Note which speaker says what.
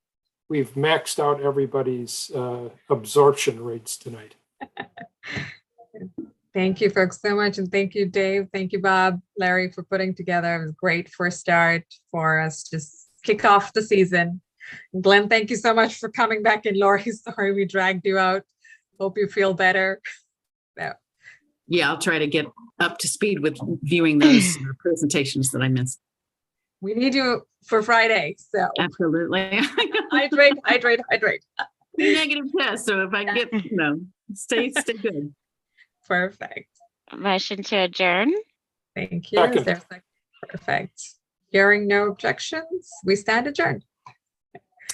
Speaker 1: we've maxed out everybody's uh, absorption rates tonight.
Speaker 2: Thank you folks so much. And thank you, Dave. Thank you, Bob, Larry, for putting together. It was a great first start for us to s- kick off the season. Glenn, thank you so much for coming back. And Lori, sorry we dragged you out. Hope you feel better.
Speaker 3: Yeah, I'll try to get up to speed with viewing those uh, presentations that I missed.
Speaker 2: We need you for Friday. So
Speaker 3: Absolutely.
Speaker 2: hydrate, hydrate, hydrate.
Speaker 3: Negative test, so if I get, you know, stay, stay good.
Speaker 2: Perfect.
Speaker 4: Motion to adjourn?
Speaker 2: Thank you. Is
Speaker 1: Second.
Speaker 2: there a sec- Perfect. Hearing no objections, we stand adjourned.